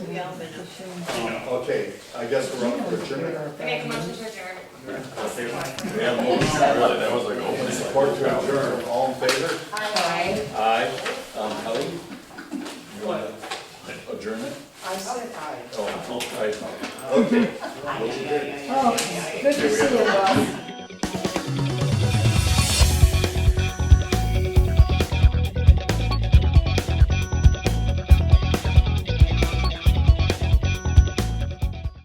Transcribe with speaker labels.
Speaker 1: Galvin.
Speaker 2: Okay, I guess we're up for adjournment.
Speaker 3: I make a motion to adjourn.
Speaker 4: Yeah, well, really, that was like
Speaker 2: And
Speaker 4: opening.
Speaker 2: support to adjourn, all in favor?
Speaker 3: Aye.
Speaker 4: Aye, um, Kelly? You want to adjourn it?
Speaker 5: I said aye.
Speaker 4: Oh, aye.
Speaker 2: Okay.
Speaker 5: Oh, good to see you, Ross.